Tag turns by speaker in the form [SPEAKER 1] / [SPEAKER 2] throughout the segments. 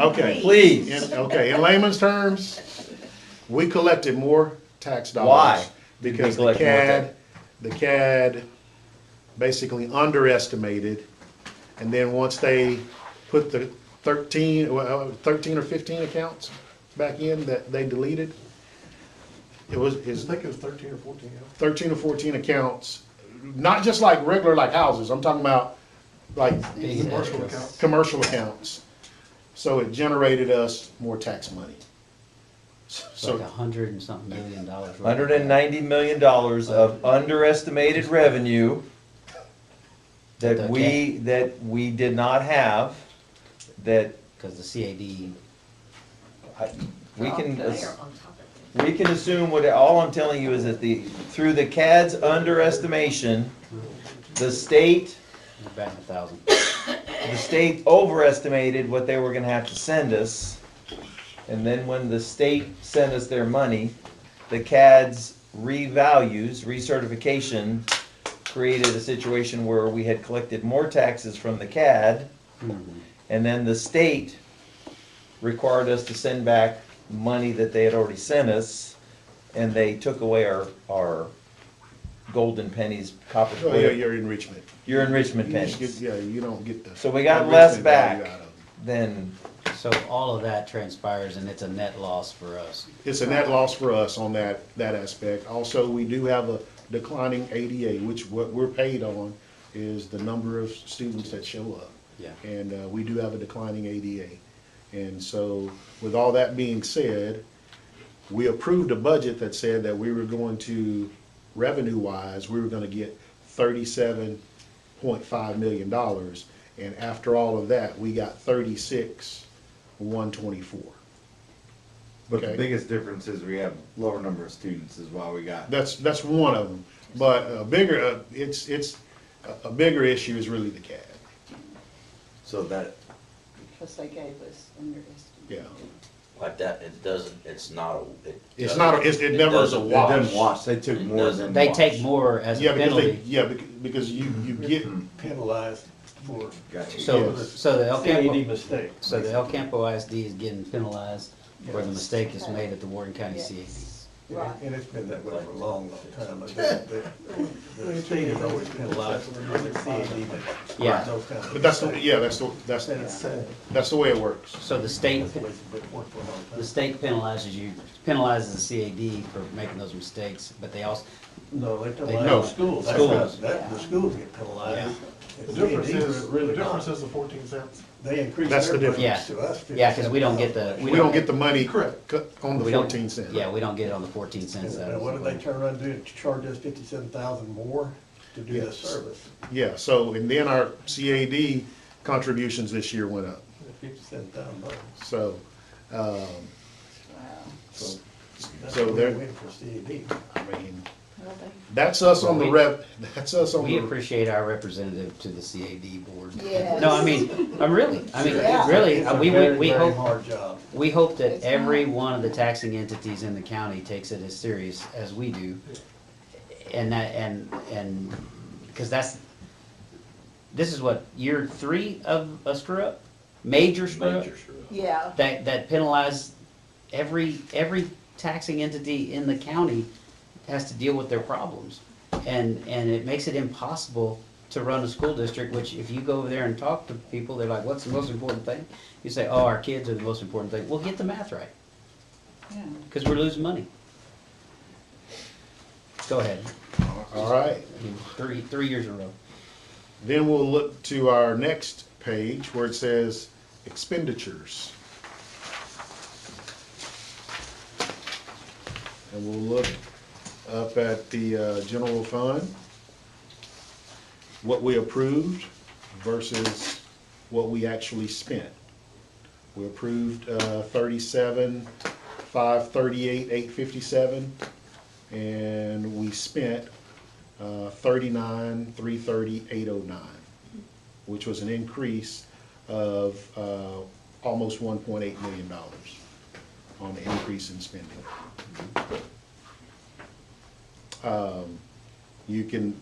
[SPEAKER 1] Okay.
[SPEAKER 2] Please.
[SPEAKER 1] In- Okay, in layman's terms, we collected more tax dollars.
[SPEAKER 2] Why did we
[SPEAKER 1] Because the
[SPEAKER 2] collect more tax?
[SPEAKER 1] CAD, the CAD basically underestimated. And then once they put the thirteen, well, uh, thirteen or fifteen accounts back in that they deleted, it was,
[SPEAKER 3] I
[SPEAKER 1] is
[SPEAKER 3] think it was thirteen or fourteen, yeah.
[SPEAKER 1] thirteen or fourteen accounts, not just like regular, like houses, I'm talking about like
[SPEAKER 3] Commercial account.
[SPEAKER 1] commercial accounts. So it generated us more tax money.
[SPEAKER 4] It's like
[SPEAKER 1] So,
[SPEAKER 4] a hundred and something million dollars. worth.
[SPEAKER 2] Hundred and ninety million dollars of underestimated revenue that we, that we did not have, that
[SPEAKER 4] Cause the CAD,
[SPEAKER 2] I- we can,
[SPEAKER 5] They are on
[SPEAKER 2] ass-
[SPEAKER 5] top of it.
[SPEAKER 2] we can assume what, all I'm telling you is that the, through the CAD's underestimation, the state,
[SPEAKER 4] we're back a thousand.
[SPEAKER 2] the state overestimated what they were gonna have to send us. And then when the state sent us their money, the CAD's revalues, recertification, created a situation where we had collected more taxes from the CAD, and then the state required us to send back money that they had already sent us, and they took away our, our golden pennies, copper,
[SPEAKER 1] oh yeah, your enrichment.
[SPEAKER 2] your enrichment
[SPEAKER 1] You just
[SPEAKER 2] pennies.
[SPEAKER 1] get- Yeah, you don't get the.
[SPEAKER 2] So we got less
[SPEAKER 1] enrichment value
[SPEAKER 2] back.
[SPEAKER 1] out of it.
[SPEAKER 2] Then
[SPEAKER 4] So all of that transpires and it's a net loss for us.
[SPEAKER 1] It's a net loss for us on that, that aspect. Also, we do have a declining ADA, which what we're paid on is the number of students that show up.
[SPEAKER 4] Yeah.
[SPEAKER 1] And uh, we do have a declining ADA. And so with all that being said, we approved a budget that said that we were going to, revenue-wise, we were gonna get thirty-seven point five million dollars. And after all of that, we got thirty-six, one twenty-four.
[SPEAKER 6] But the
[SPEAKER 1] Okay.
[SPEAKER 6] biggest difference is we have lower number of students is why we got.
[SPEAKER 1] That's, that's one of them. But a bigger, uh, it's, it's, a- a bigger issue is really the CAD.
[SPEAKER 6] So that,
[SPEAKER 5] Because they gave us underestimated.
[SPEAKER 1] Yeah.
[SPEAKER 7] Like that, it doesn't, it's not a. it
[SPEAKER 1] It's
[SPEAKER 7] doesn't-
[SPEAKER 1] not, a- it's- it never is a
[SPEAKER 7] doesn't-
[SPEAKER 6] it
[SPEAKER 1] wash.
[SPEAKER 6] didn't watch, they took
[SPEAKER 7] It
[SPEAKER 6] more than.
[SPEAKER 7] doesn't-
[SPEAKER 4] They
[SPEAKER 7] Watch.
[SPEAKER 4] take more as a
[SPEAKER 1] Yeah, because they,
[SPEAKER 4] penalty.
[SPEAKER 1] yeah, bec- because you, you get,
[SPEAKER 3] Penalized for
[SPEAKER 6] Gotcha.
[SPEAKER 4] So,
[SPEAKER 1] yes.
[SPEAKER 4] so the El
[SPEAKER 3] CAD
[SPEAKER 4] Campo,
[SPEAKER 3] mistake.
[SPEAKER 4] so the El Campo ISD is getting penalized where the
[SPEAKER 3] Yes.
[SPEAKER 4] mistake is made at the Warden County CAD.
[SPEAKER 5] Right.
[SPEAKER 3] And it's been that way for a long, long time. I think The the state has always penalized for the CAD, but.
[SPEAKER 4] Yeah.
[SPEAKER 3] those kind of-
[SPEAKER 1] but that's, the yeah, that's, the that's,
[SPEAKER 3] And it's
[SPEAKER 1] the
[SPEAKER 3] sad.
[SPEAKER 1] that's the way it works.
[SPEAKER 4] So the state,
[SPEAKER 3] That's the way it's been worked for a long time.
[SPEAKER 4] the state penalizes you, penalizes the CAD for making those mistakes, but they also,
[SPEAKER 3] No, they
[SPEAKER 4] No.
[SPEAKER 3] penalize the schools. That's
[SPEAKER 4] Schools.
[SPEAKER 3] not- That, the schools get penalized.
[SPEAKER 8] The difference is, the
[SPEAKER 3] Really not.
[SPEAKER 8] difference is the fourteen cents.
[SPEAKER 3] They increase
[SPEAKER 1] That's
[SPEAKER 3] their
[SPEAKER 1] the
[SPEAKER 3] budgets
[SPEAKER 4] difference.
[SPEAKER 3] to us.
[SPEAKER 4] yeah, cause we don't get the,
[SPEAKER 1] We don't get the money
[SPEAKER 8] Correct.
[SPEAKER 1] cut on the
[SPEAKER 4] we don't-
[SPEAKER 1] fourteen cent.
[SPEAKER 4] Yeah, we don't get it on the fourteen cents.
[SPEAKER 3] And what did they turn around and do, charge us fifty-seven thousand more to do this
[SPEAKER 1] Yes.
[SPEAKER 3] service?
[SPEAKER 1] Yeah, so, and then our CAD contributions this year went up,
[SPEAKER 3] Fifty-seven thousand bucks.
[SPEAKER 1] so, um,
[SPEAKER 3] So that's
[SPEAKER 1] So
[SPEAKER 3] what
[SPEAKER 1] they're-
[SPEAKER 3] we're waiting for E CAD.
[SPEAKER 1] I mean, that's us on the rep, that's us on
[SPEAKER 4] We
[SPEAKER 1] the,
[SPEAKER 4] appreciate our representative to the CAD board.
[SPEAKER 5] Yes.
[SPEAKER 4] No, I mean, I'm really, I mean,
[SPEAKER 5] Yeah.
[SPEAKER 4] really, uh,
[SPEAKER 3] It's a
[SPEAKER 4] we, we,
[SPEAKER 3] very,
[SPEAKER 4] we
[SPEAKER 3] very
[SPEAKER 4] hope,
[SPEAKER 3] hard job.
[SPEAKER 4] we hope that
[SPEAKER 5] It's
[SPEAKER 4] every
[SPEAKER 5] hard.
[SPEAKER 4] one of the taxing entities in the county takes it as serious as we do. And that, and, and, because that's, this is what, year three of a screw up? Major screw up?
[SPEAKER 7] Major screw up.
[SPEAKER 5] Yeah.
[SPEAKER 4] That, that penalize every, every taxing entity in the county has to deal with their problems. And, and it makes it impossible to run a school district, which if you go over there and talk to people, they're like, what's the most important thing? You say, oh, our kids are the most important thing. Well, get the math right,
[SPEAKER 5] Yeah.
[SPEAKER 4] because we're losing money. Go ahead.
[SPEAKER 1] all right.
[SPEAKER 4] Three, three years in a row.
[SPEAKER 1] Then we'll look to our next page where it says expenditures. And we'll look up at the uh, general fund, what we approved versus what we actually spent. We approved uh, thirty-seven, five thirty-eight, eight fifty-seven, and we spent uh, 39, 330, 809, which was an increase of uh, almost $1.8 million on the increase in spending. Um, You can,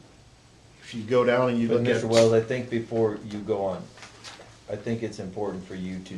[SPEAKER 1] if you go down and you
[SPEAKER 2] But
[SPEAKER 1] look at.
[SPEAKER 2] Mr. Wells, I think before you go on, I think it's important for you to